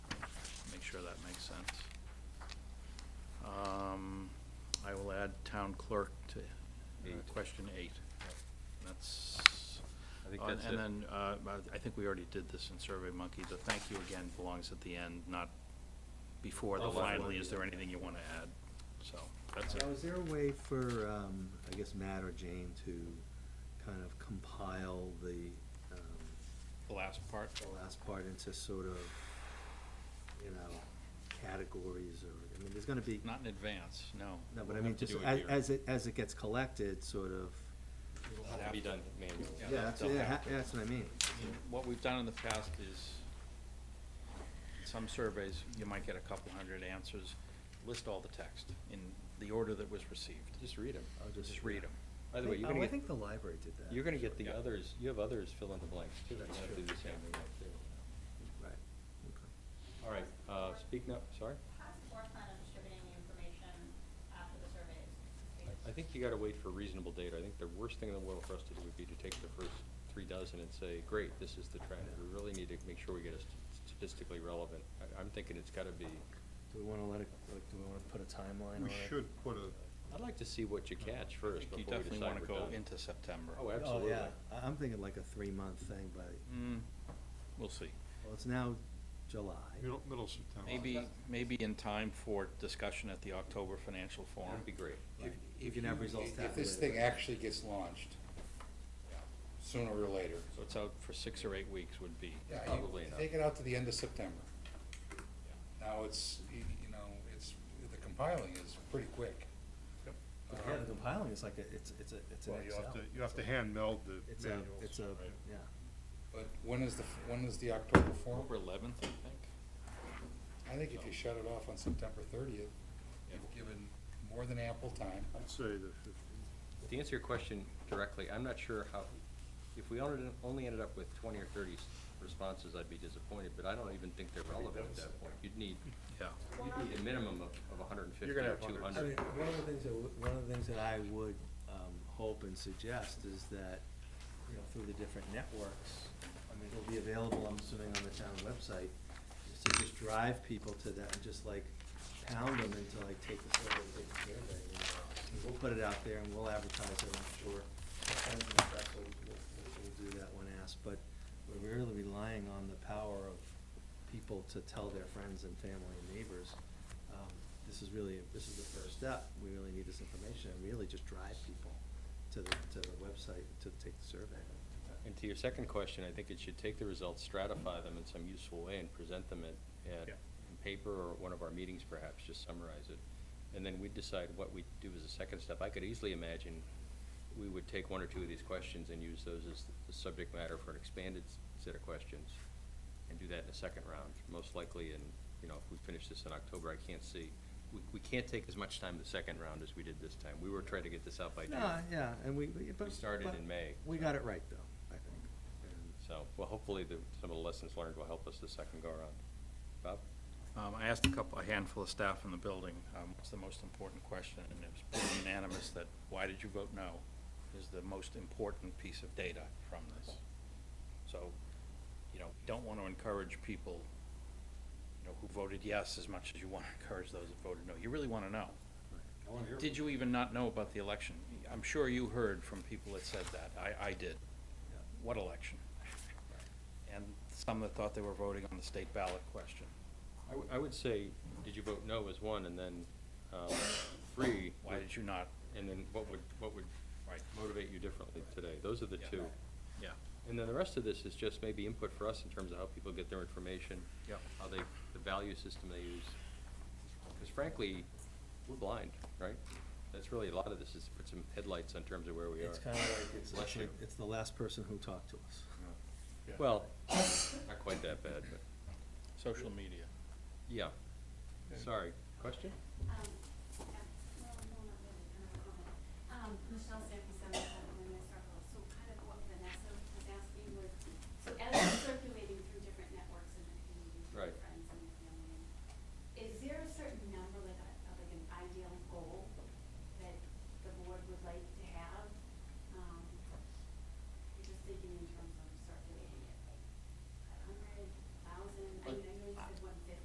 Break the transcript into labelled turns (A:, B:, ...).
A: that makes sense. Um, I will add town clerk to uh,
B: Eight.
A: question eight. That's,
B: I think
A: uh,
B: that's
A: and
B: it.
A: then, uh, but I think we already did this in Survey Monkey. The thank you again belongs at the end, not before the
B: Oh, well,
A: finally,
B: yeah.
A: is there anything you want to add? So, that's it.
C: Now, is there a way for, um, I guess Matt or Jane to kind of compile the, um,
A: The last part?
C: the last part into sort of, you know, categories or, I mean, there's gonna be,
A: Not in advance, no.
C: no, but I
A: We'll
C: mean,
A: have to
C: just
A: do it
C: as,
A: here.
C: as it, as it gets collected, sort of,
A: It'll
B: It'll
A: have
B: be
A: to-
B: done manually.
A: Yeah,
C: yeah,
A: that's-
C: that's,
A: they'll
C: yeah,
A: have
C: ha- that's what I mean.
A: What we've done in the past is, some surveys, you might get a couple hundred answers, list all the text in the order that was received.
B: Just read them.
C: I'll just-
A: Just read them.
B: By the way, you're
C: Oh,
B: gonna
C: I
B: get,
C: think the library did that.
B: you're gonna get the
A: Yeah.
B: others, you have others fill in the blanks too. You
C: That's
B: have to
C: true.
B: do the same thing up there.
C: Right, okay.
B: All right, uh, speaking up, sorry?
D: How's the floor plan of distributing the information after the survey is completed?
B: I- I think you gotta wait for reasonable data. I think the worst thing in the world for us to do would be to take the first three dozen and say, great, this is the trend. We really need to make sure we get it statistically relevant. I, I'm thinking it's gotta be,
E: Do we wanna let it, like, do we wanna put a timeline on
F: We
E: it?
F: should put a,
B: I'd like to see what you catch
A: I
B: first
A: think You
B: before we
A: definitely want
B: decide
A: to
B: we're done.
A: go into September.
B: Oh,
C: Oh,
B: absolutely.
C: yeah, I, I'm thinking like a three-month thing, but,
A: Hmm, We'll see.
B: Uh-huh.
C: well, it's now July.
F: middle, middle September.
A: Maybe, maybe in time for discussion at the October financial forum.
B: That'd be great.
C: Right. We can have results
G: If this
C: tabulated.
G: thing actually gets launched, sooner or later.
A: So it's out for six or eight weeks would be.
G: Yeah, you
B: Probably not.
G: Take it out to the end of September. Now, it's, y- you know, it's, the compiling is pretty quick.
C: But Yeah, the compiling is like a, it's, it's a, it's an
F: Well, you have
C: Excel.
F: to, you have to hand meld the
C: It's a,
F: manuals.
C: it's a,
F: right?
C: yeah.
G: But when is the, f- when is the October forum?
A: October eleventh, I think.
G: I think if you shut it off on September thirtieth, you've given more than ample time.
F: I'd say the fifteen.
B: To answer your question directly, I'm not sure how, if we only, only ended up with twenty or thirty s- responses, I'd be disappointed, but I don't even think they're relevant at that point. You'd need,
A: Yeah.
B: you'd need a minimum of, of hundred and fifty
F: You're gonna
B: or
F: have
B: two
C: I mean,
B: hundred.
C: one of the things that, w- one of the things that I would, um, hope and suggest is that, you know, through the different networks, I mean, it'll be available, I'm assuming, on the town website, is to just drive people to that and just like pound them into like, take the survey, take the survey. you know. And We'll put it out there and we'll advertise it, I'm sure. The Friends and Press will, will, will do that when asked, but we're really relying on the power of people to tell their friends and family and neighbors, um, this is really, this is the first step, we really need this information, and really just drive people to the, to the website to take the survey.
B: And to your second question, I think it should take the results, stratify them in some useful way and present them at, at
A: Yeah.
B: in paper or one of our meetings perhaps, just summarize it. And then we decide what we do as a second step. I could easily imagine we would take one or two of these questions and use those as the subject matter for an expanded s- set of questions and do that in a second round, most likely in, you know, if we finish this in October, I can't see. We, we can't take as much time the second round as we did this time. We were trying to get this out by June.
C: No, yeah, and we, we, but.
B: We started
C: but
B: in May,
C: We
B: so.
C: got it right, though, I think. And
B: So, well, hopefully the, some of the lessons learned will help us the second go around. Bob?
A: Um, I asked a couple, a handful of staff in the building, um, what's the most important question? And it was pretty unanimous that, why did you vote no, is the most important piece of data from this. So, you know, don't want to encourage people, you know, who voted yes as much as you want to encourage those that voted no. You really want to know. Did you even not know about the election? I'm sure you heard from people that said that. I, I did. What election? And some that thought they were voting on the state ballot question.
B: I, w- I would say, did you vote no as one, and then, um, three,
A: Why did you not?
B: and then what would, what would
A: Right.
B: motivate you differently today? Those are the
A: Yeah.
B: two.
A: Yeah.
B: And then the rest of this is just maybe input for us in terms of how people get their information.
A: Yeah.
B: How they, the value system they use. Because frankly, we're blind, right? That's really, a lot of this is put some headlights on terms of where we are.
C: It's kinda like, it's,
B: Bless
C: it's like-
B: you.
C: it's the last person who talked to us.
B: Well, not quite that bad, but,
A: Social media.
B: yeah. Sorry, question?
D: Um, yeah, well, no, not really, I don't know. Um, Michelle Sanford, Um,